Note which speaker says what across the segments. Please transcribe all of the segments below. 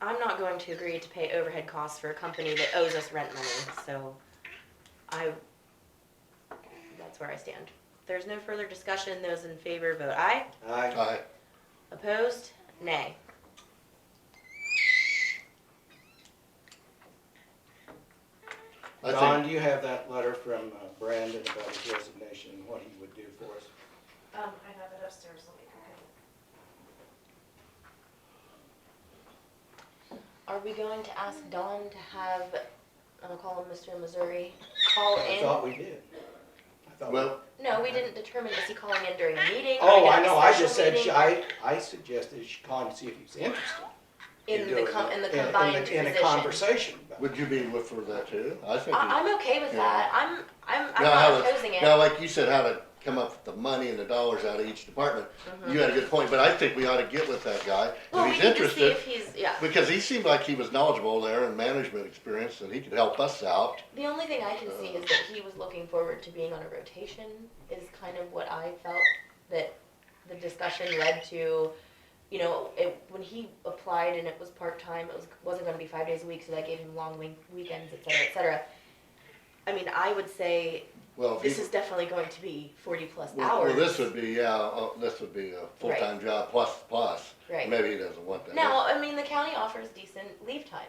Speaker 1: not going to agree to pay overhead costs for a company that owes us rent money, so I, that's where I stand. There's no further discussion. Those in favor vote aye.
Speaker 2: Aye.
Speaker 3: Aye.
Speaker 1: Opposed? Nay.
Speaker 3: I
Speaker 2: Don,
Speaker 3: think,
Speaker 2: do you have that letter from uh, Brandon about his resignation and what he would do for us?
Speaker 4: Um, I have it upstairs, let me go get it.
Speaker 1: Are we going to ask Don to have, I'll call him Mr. Missouri, call
Speaker 2: I
Speaker 1: in?
Speaker 2: thought we did. I thought we-
Speaker 3: well,
Speaker 1: No, we didn't determine, is he calling in during a meeting? Are we
Speaker 2: Oh,
Speaker 1: gonna
Speaker 2: I
Speaker 1: have a
Speaker 2: know, I
Speaker 1: special
Speaker 2: just said, she-
Speaker 1: meeting?
Speaker 2: I, I suggested she call him and see if he's interested.
Speaker 1: In the
Speaker 2: doing
Speaker 1: com,
Speaker 2: it.
Speaker 1: in the
Speaker 2: in a-
Speaker 1: combined
Speaker 2: In
Speaker 1: position.
Speaker 2: a conversation. about it.
Speaker 3: would you be with for that too? I think.
Speaker 1: I, I'm okay with
Speaker 3: Yeah.
Speaker 1: that. I'm, I'm, I'm
Speaker 3: Now, how
Speaker 1: not
Speaker 3: to-
Speaker 1: opposing
Speaker 3: Now,
Speaker 1: it.
Speaker 3: like you said, how to come up with the money and the dollars out of each department. You had a good point, but I think we ought to get with that guy.
Speaker 1: Mm-hmm. Well,
Speaker 3: If
Speaker 1: we
Speaker 3: he's
Speaker 1: need to see
Speaker 3: interested,
Speaker 1: if he's, yeah.
Speaker 3: because he seemed like he was knowledgeable there and management experience and he could help us out.
Speaker 1: The only thing I can see is that he was looking forward to being on a rotation is kind of what I felt that the discussion led to. You know, it, when he applied and it was part-time, it was, wasn't gonna be five days a week, so that gave him long week, weekends, et cetera, et cetera. I mean, I would say
Speaker 3: Well, if
Speaker 1: this
Speaker 3: he-
Speaker 1: is definitely going to be forty-plus
Speaker 3: well,
Speaker 1: hours.
Speaker 3: well, this would be, yeah, uh, this would be a full-time job plus, plus.
Speaker 1: Right.
Speaker 3: Maybe he doesn't want that.
Speaker 1: Now, I mean, the county offers decent leave time.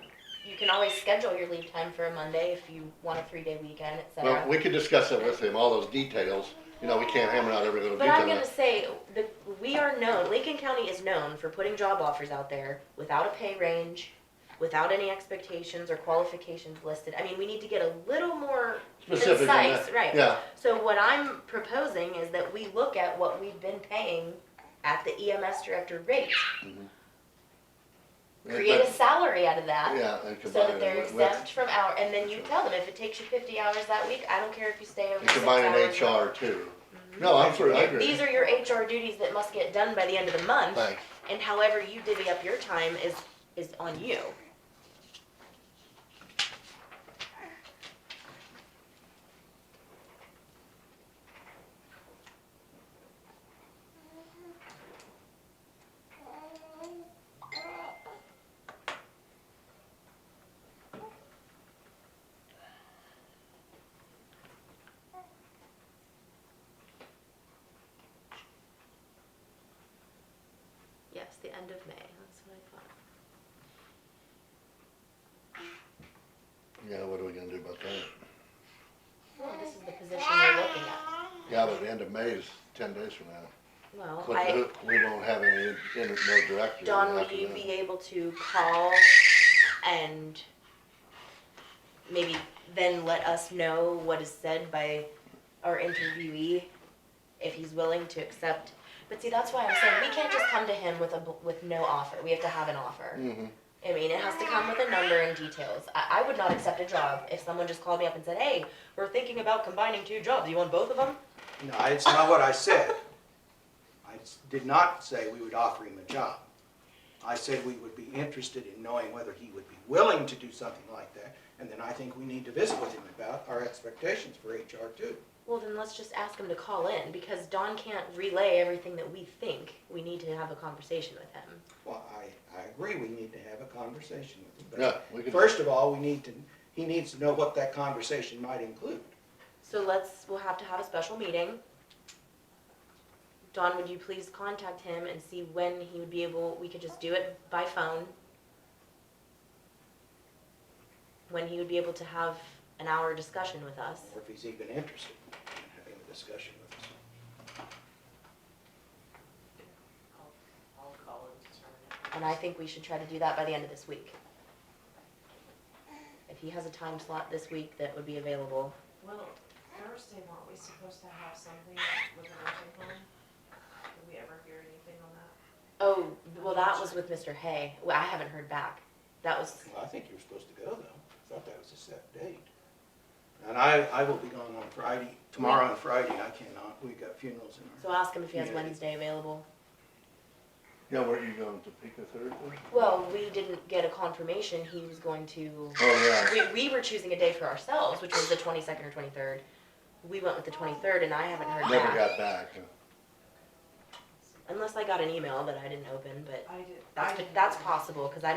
Speaker 1: You can always schedule your leave time for a Monday if you want a three-day weekend, et cetera.
Speaker 3: Well, we could discuss that with him, all those details. You know, we can't hammer out every little
Speaker 1: But I'm
Speaker 3: detail.
Speaker 1: gonna say that we are known, Lincoln County is known for putting job offers out there without a pay range, without any expectations or qualifications listed. I mean, we need to get a little more
Speaker 3: Specific on that.
Speaker 1: concise, right.
Speaker 3: Yeah,
Speaker 1: So what I'm proposing is that we look at what we've been paying at the EMS director rate. Create a
Speaker 3: but-
Speaker 1: salary out of that.
Speaker 3: yeah, and
Speaker 1: So
Speaker 3: combine
Speaker 1: that
Speaker 3: it
Speaker 1: they're
Speaker 3: with- with-
Speaker 1: exempt from hour, and then you tell them if it takes you fifty hours that week, I don't care if you stay over
Speaker 3: You
Speaker 1: six
Speaker 3: combine an
Speaker 1: hours.
Speaker 3: HR too. No, I'm for, I agree.
Speaker 1: Mm-hmm. These are your HR duties that must get done by the end of the month.
Speaker 3: Thanks.
Speaker 1: And however you divvy up your time is, is on you. Yes, the end of May, that's what I thought.
Speaker 3: Yeah, what are we gonna do about that?
Speaker 1: Well, Oh, this is the position we're looking at.
Speaker 3: Yeah, but the end of May is ten days from now.
Speaker 1: Well,
Speaker 3: But
Speaker 1: I,
Speaker 3: who- We won't have any, in- in- no director.
Speaker 1: Don, will
Speaker 3: after
Speaker 1: you
Speaker 3: that.
Speaker 1: be able to call and maybe then let us know what is said by our interviewee? If he's willing to accept, but see, that's why I'm saying we can't just come to him with a, bl- with no offer, we have to have an offer.
Speaker 3: Mhm.
Speaker 1: I mean, it has to come with a number and details. I, I would not accept a job if someone just called me up and said, hey, we're thinking about combining two jobs. You want both of them?
Speaker 2: No, it's not what I said. I s- did not say we would offer him a job. I said we would be interested in knowing whether he would be willing to do something like that. And then I think we need to visit with him about our expectations for HR too.
Speaker 1: Well, then let's just ask him to call in because Don can't relay everything that we think. We need to have a conversation with him.
Speaker 2: Well, I, I agree, we need to have a conversation with him.
Speaker 3: Yeah, we
Speaker 2: But
Speaker 3: could.
Speaker 2: first of all, we need to, he needs to know what that conversation might include.
Speaker 1: So let's, we'll have to have a special meeting. Don, would you please contact him and see when he would be able, we could just do it by phone. When he would be able to have an hour discussion with us.
Speaker 2: or if he's even interested in having a discussion with us.
Speaker 4: I'll, I'll call and determine it.
Speaker 1: And I think we should try to do that by the end of this week. If he has a time slot this week that would be available.
Speaker 4: Well, Thursday, weren't we supposed to have something with the nursing home? Did we ever hear anything on that?
Speaker 1: Oh, well, that was with Mr. Hay. Well, I haven't heard back. That was,
Speaker 2: Well, I think you were supposed to go though. I thought that was a set date. And I, I will be gone on Friday, tomorrow and Friday. I cannot. We've got funerals in
Speaker 1: so ask him if he has Wednesday available.
Speaker 3: Yeah, where you going, Topeka Thursday?
Speaker 1: Well, we didn't get a confirmation he was going to,
Speaker 3: Oh, yeah.
Speaker 1: we, we were choosing a day for ourselves, which was the twenty-second or twenty-third. We went with the twenty-third and I haven't heard
Speaker 3: Never
Speaker 1: back.
Speaker 3: got back. huh?
Speaker 1: Unless I got an email that I didn't open, but
Speaker 4: I did. I
Speaker 1: that's,
Speaker 4: didn't
Speaker 1: that's
Speaker 4: know.
Speaker 1: possible, cause I